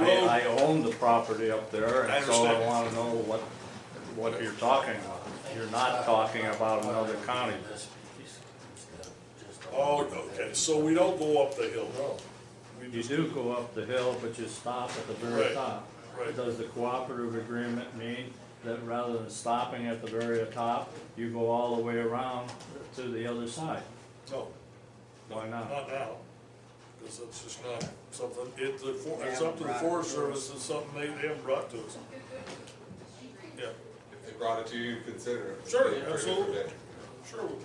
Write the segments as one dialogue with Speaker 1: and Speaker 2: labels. Speaker 1: own the property up there,
Speaker 2: I
Speaker 1: and so I
Speaker 2: understand.
Speaker 1: wanna know what, what you're talking about. You're not talking about another county.
Speaker 2: Oh, okay, so we don't go up the hill. We
Speaker 1: You
Speaker 2: just-
Speaker 1: do go up the hill, but you stop at the
Speaker 2: Right,
Speaker 1: very top.
Speaker 2: right.
Speaker 1: Does the cooperative agreement mean that rather than stopping at the very top, you go all the way around to the other side?
Speaker 2: No,
Speaker 1: Why not?
Speaker 2: not now, because that's just not something, it, the, for-
Speaker 3: They
Speaker 2: it's
Speaker 3: haven't
Speaker 2: up to the
Speaker 3: brought it
Speaker 2: Forest
Speaker 3: to us.
Speaker 2: Service, it's something they, they haven't brought to us. Yeah,
Speaker 4: If they brought it to you, you'd consider it.
Speaker 2: Sure,
Speaker 4: You'd approve it.
Speaker 2: absolutely. sure,
Speaker 1: Well,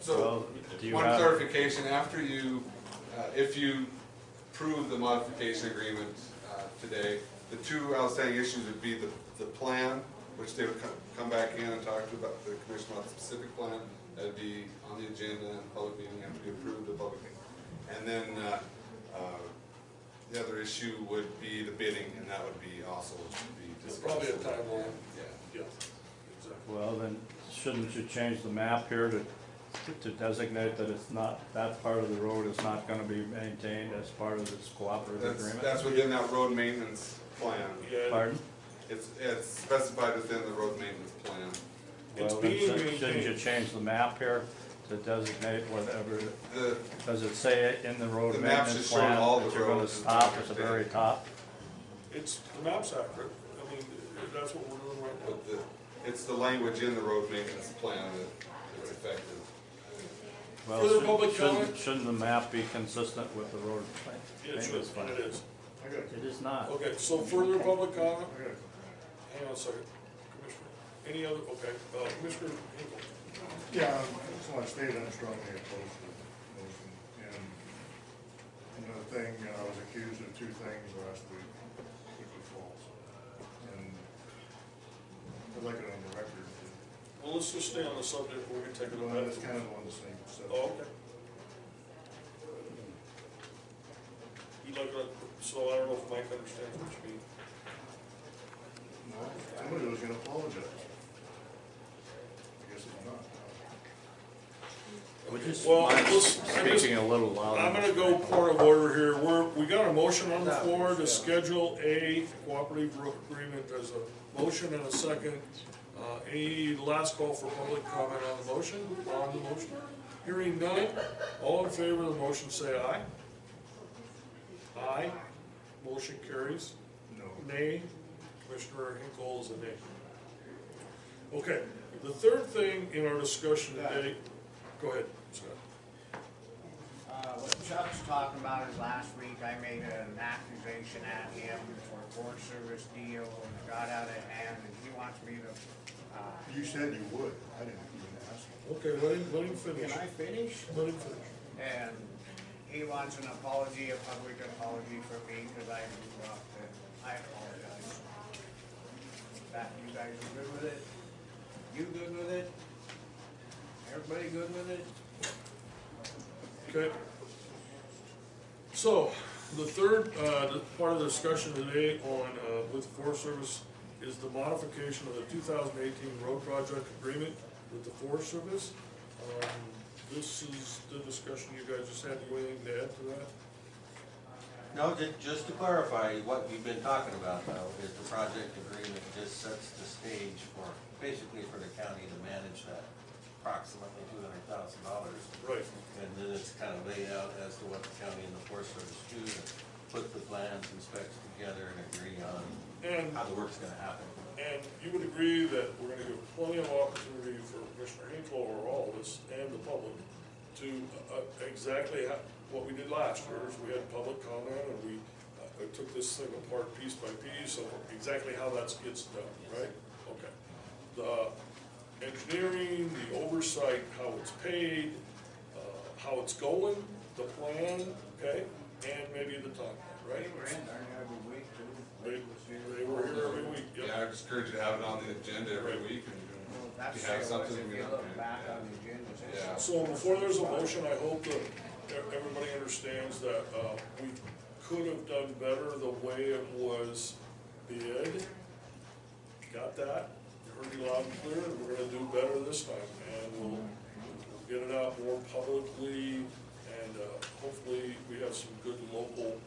Speaker 4: So,
Speaker 1: do you
Speaker 4: one
Speaker 1: have-
Speaker 4: clarification, after you, uh, if you approve the modification agreement uh, today, the two outstanding issues would be the, the plan, which they would come, come back in and talk to about the commission about the specific plan, that'd be on the agenda and public meeting, have to be approved at public meeting. And then, uh, uh, the other issue would be the bidding, and that would be also be
Speaker 2: There's
Speaker 4: discussed.
Speaker 2: probably a timeline.
Speaker 4: Yeah.
Speaker 2: yeah, exactly.
Speaker 1: Well, then, shouldn't you change the map here to, to designate that it's not, that part of the road is not gonna be maintained as part of this cooperative
Speaker 4: That's,
Speaker 1: agreement?
Speaker 4: that's within that road maintenance plan.
Speaker 2: Yeah,
Speaker 1: Pardon?
Speaker 4: It's, it's specified within the road maintenance plan.
Speaker 2: It's
Speaker 1: Well, then
Speaker 2: being
Speaker 1: shouldn't- Shouldn't you
Speaker 2: maintained.
Speaker 1: change the map here to designate whatever,
Speaker 4: The,
Speaker 1: does it say it in the road
Speaker 4: The map's
Speaker 1: maintenance
Speaker 4: just showing
Speaker 1: plan
Speaker 4: all
Speaker 1: that
Speaker 4: the
Speaker 1: you're gonna
Speaker 4: roads and
Speaker 1: stop at the
Speaker 4: everything.
Speaker 1: very top?
Speaker 2: it's, the map's accurate, I mean, that's what we're doing right now.
Speaker 4: with the, it's the language in the road maintenance plan that is effective.
Speaker 1: Well,
Speaker 2: Further
Speaker 1: shouldn't-
Speaker 2: public
Speaker 1: shouldn't-
Speaker 2: comment?
Speaker 1: Shouldn't the map be consistent with the road plan?
Speaker 2: It should,
Speaker 1: maintenance plan?
Speaker 2: and it is.
Speaker 1: It is not.
Speaker 2: Okay, so further public comment? Hang on a second, Commissioner, any other, okay, uh, Commissioner Hinkle,
Speaker 5: Yeah, just want to state I'm strongly opposed to the motion. And another thing, you know, I was accused of two things last week, which was false. And I'd like it on the record.
Speaker 2: well, let's just stay on the subject, we're gonna take it
Speaker 5: Well,
Speaker 2: on
Speaker 5: that's
Speaker 2: that.
Speaker 5: kind of on the same stuff.
Speaker 2: Oh, okay. You like that, so I don't know if Mike understands what you mean.
Speaker 5: No, Somebody was gonna apologize. I guess it's not.
Speaker 1: Would you s-
Speaker 2: Well,
Speaker 1: mind
Speaker 2: let's- I just-
Speaker 1: Speaking a little louder.
Speaker 2: I'm gonna go point of order here, we're, we got a motion on the floor to schedule a cooperative ro- agreement, there's a motion and a second. Uh, any last call for public comment on the motion, on the motion? Hearing none, all in favor of the motion say aye. Aye, motion carries.
Speaker 5: No.
Speaker 2: Nay, Commissioner Hinkle is a nay. Okay, the third thing in our discussion today, go ahead, Scott.
Speaker 3: Uh, what Chuck's talking about is last week I made an accusation at him for a Forest Service deal and it got out of hand and he wants me to, uh,
Speaker 5: You said you would. I didn't even ask you.
Speaker 2: Okay, let him, let him finish.
Speaker 3: can I finish?
Speaker 2: Let him finish.
Speaker 3: And he wants an apology, a public apology for me because I moved off the, I apologize. That, you guys are good with it? You good with it? Everybody good with it?
Speaker 2: Okay. So, the third, uh, the part of the discussion today on, uh, with the Forest Service is the modification of the two thousand eighteen road project agreement with the Forest Service. Um, This is the discussion you guys just had, you anything to add to that?
Speaker 6: No, ju- just to clarify, what you've been talking about though, is the project agreement just sets the stage for, basically for the county to manage that approximately two hundred thousand dollars.
Speaker 2: Right.
Speaker 6: And then it's kind of laid out as to what the county and the Forest Service do, to put the plans and specs together and agree on
Speaker 2: And
Speaker 6: how the work's gonna happen.
Speaker 2: And you would agree that we're gonna give plenty of opportunity for Commissioner Hinkle or all of us and the public to, uh, exactly how, what we did last year, is we had public comment and we, uh, uh, took this thing apart piece by piece of exactly how that gets done, right? Okay. The engineering, the oversight, how it's paid, uh, how it's going, the plan, okay, and maybe the timeline,
Speaker 3: They
Speaker 2: right?
Speaker 3: were in there every week too.
Speaker 2: They, they were here every week, yep.
Speaker 4: Yeah, I would just encourage you to have it on the agenda every week
Speaker 3: Well,
Speaker 4: and
Speaker 3: That's
Speaker 4: if
Speaker 3: the
Speaker 4: you have
Speaker 3: way it was,
Speaker 4: something.
Speaker 3: if
Speaker 4: we
Speaker 3: you
Speaker 4: don't-
Speaker 3: look back
Speaker 4: yeah.
Speaker 3: on the agenda, it's-
Speaker 4: Yeah.
Speaker 2: So before there's a motion, I hope that e- everybody understands that, uh, we could have done better the way it was bid. Got that? You heard me loud and clear, and we're gonna do better this time, and we'll, we'll get it out more publicly, and, uh, hopefully, we have some good local